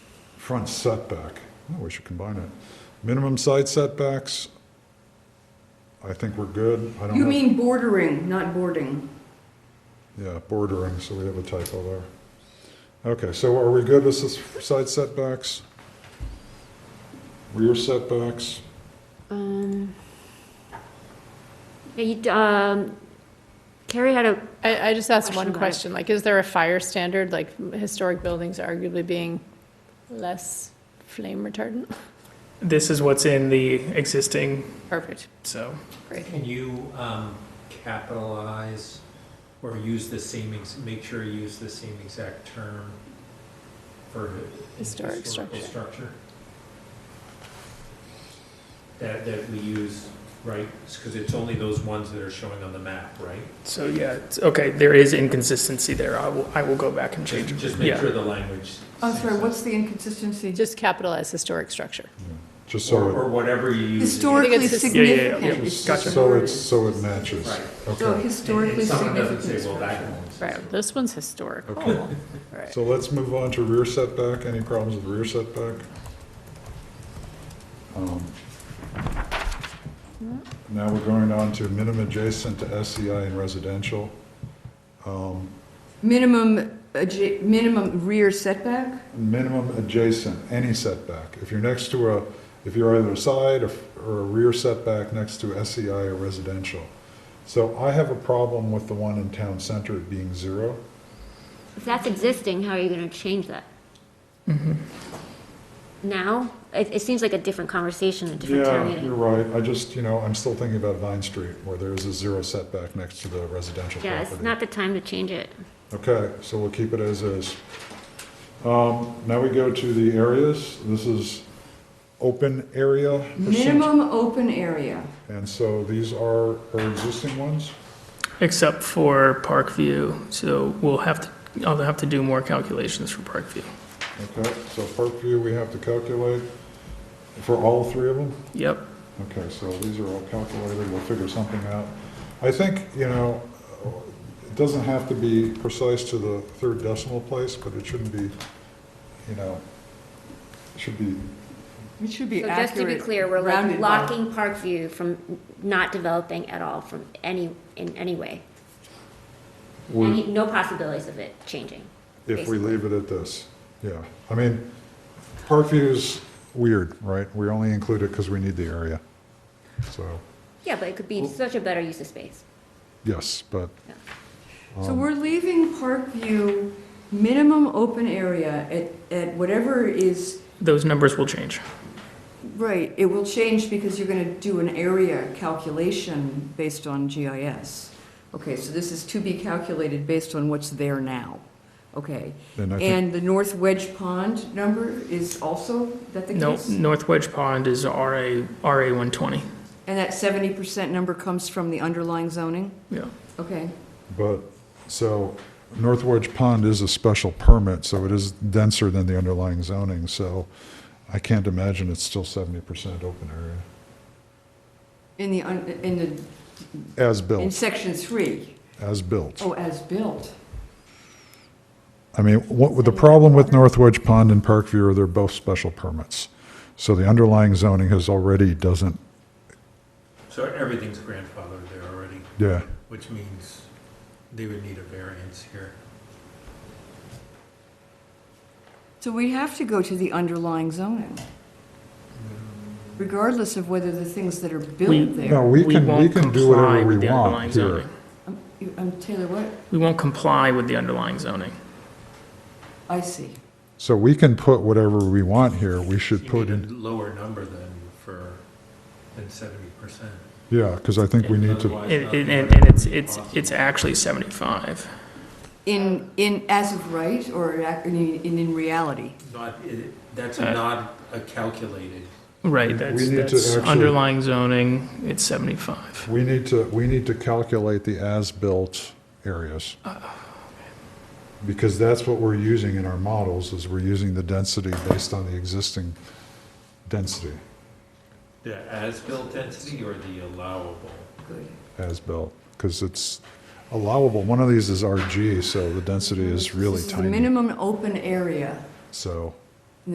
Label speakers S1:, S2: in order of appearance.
S1: front setback, oh, we should combine it. Minimum side setbacks, I think we're good. I don't
S2: You
S1: have-
S2: mean bordering, not boarding.
S1: Yeah, bordering, so we have a typo there. Okay, so are we good with this side setbacks? Rear setbacks?
S3: Um, yeah, you- um, Carrie had a,
S4: I, I just asked
S3: Question
S4: one
S3: about it.
S4: question, like, is there a fire standard, like historic buildings arguably being less flame retardant?
S5: This is what's in the existing,
S4: Perfect,
S5: so.
S4: great.
S6: Can you um, capitalize or use the same, ex- make sure you use the same exact term for
S4: Historic
S6: historical
S4: structure.
S6: structure? That, that we use, right, because it's only those ones that are showing on the map, right?
S5: So yeah, it's, okay, there is inconsistency there. I will, I will go back and change
S6: Just
S5: it.
S6: just make
S5: Yeah.
S6: sure the language.
S2: I'm
S6: syncs
S2: Oh, sorry,
S6: up.
S2: what's the inconsistency?
S4: Just capitalize historic structure.
S1: Just
S6: Or
S1: so
S6: or whatever you use. it in.
S2: Historically
S4: I think it's his-
S5: Yeah, yeah, yeah,
S2: significant.
S5: yeah.
S2: It's
S1: it,
S5: Gotcha.
S2: just
S1: so
S2: word.
S1: it's, so it matches.
S6: Right.
S2: So
S1: Okay,
S6: And-
S2: historically
S6: and Someone doesn't
S2: significant.
S6: say, well, that
S2: structure.
S6: one's.
S4: Right, this one's historic. Oh.
S1: okay.
S4: Right.
S1: So let's move on to rear setback. Any problems with rear setback? Um, Now we're going on to minimum adjacent to SEI and residential. Um,
S2: Minimum, adja- minimum rear setback?
S1: minimum adjacent, any setback. If you're next to a, if you're either a side or or a rear setback next to SEI or residential. So I have a problem with the one in town center being zero.
S3: if that's existing, how are you gonna change that?
S2: Mm-hmm.
S3: Now? It, it seems like a different conversation, a different town
S1: Yeah, you're
S3: meeting.
S1: right. I just, you know, I'm still thinking about Vine Street where there's a zero setback next to the residential property.
S3: Yeah, it's not the time to change it.
S1: Okay, so we'll keep it as is. Um, Now we go to the areas. This is open area. percent-
S2: Minimum open area.
S1: And so these are our existing ones?
S5: Except for Parkview, so we'll have to, I'll have to do more calculations for Parkview.
S1: Okay, so Parkview, we have to calculate for all three of them?
S5: Yep,
S1: Okay, so these are all calculated, we'll figure something out. I think, you know, it doesn't have to be precise to the third decimal place, but it shouldn't be, you know, it should be,
S2: It should
S3: So
S2: be accurate.
S3: just to be clear, we're like
S2: rounded by-
S3: locking Parkview from not developing at all from any, in any way. Any, no possibilities of it changing.
S1: if we leave it at this, yeah. I mean, Parkview's weird, right? We only include it because we need the area. So,
S3: Yeah, but it could be such a better use of space.
S1: yes, but um,
S2: So we're leaving Parkview minimum open area at, at whatever is,
S5: those numbers will change.
S2: right, it will change because you're gonna do an area calculation based on GIS. Okay, so this is to be calculated based on what's there now, okay?
S1: then I think,
S2: And the North Wedge Pond number is also, is that the
S5: No,
S2: case?
S5: North Wedge Pond is RA, RA one twenty,
S2: And that seventy percent number comes from the underlying zoning?
S5: yeah.
S2: Okay,
S1: but, so North Wedge Pond is a special permit, so it is denser than the underlying zoning, so I can't imagine it's still 70% open area.
S2: in the, un- in the,
S1: As
S2: in
S1: built,
S2: section three,
S1: as built.
S2: oh, as built.
S1: I mean, what, the problem with North Wedge Pond and Parkview are they're both special permits. So the underlying zoning has already doesn't,
S6: So everything's grandfathered there already,
S1: yeah,
S6: which means they would need a variance here.
S2: So we have to go to the underlying zoning, regardless of whether the things that are
S5: We-
S2: built
S1: no,
S2: there.
S1: we can, we
S5: won't
S1: can do
S5: comply
S1: whatever
S5: with
S1: we
S5: the
S1: want
S5: underlying
S1: here.
S5: zoning.
S2: Um, you- um, Taylor, what?
S5: We won't comply with the underlying zoning.
S2: I see.
S1: So we can put whatever we want here, we should
S6: You
S1: put in,
S6: need a lower number than for, than seventy percent.
S1: yeah, because I think we need to.
S5: And, and, and it's, it's, it's actually seventy-five.
S2: In, in, as of right, or ac- in, in in reality?
S6: Not, it- that's
S5: Uh,
S6: not a calculated.
S1: We-
S5: Right, that's,
S1: we need to
S5: that's
S1: actually-
S5: underlying zoning, it's seventy-five.
S1: We need to, we need to calculate the as-built areas. Because that's what we're using in our models, is we're using the density based on the existing density,
S6: The as-built density or the allowable?
S2: Good.
S1: as-built, because it's allowable. One of these is RG, so the density is really
S2: This is the
S1: tiny.
S2: minimum open area.
S1: So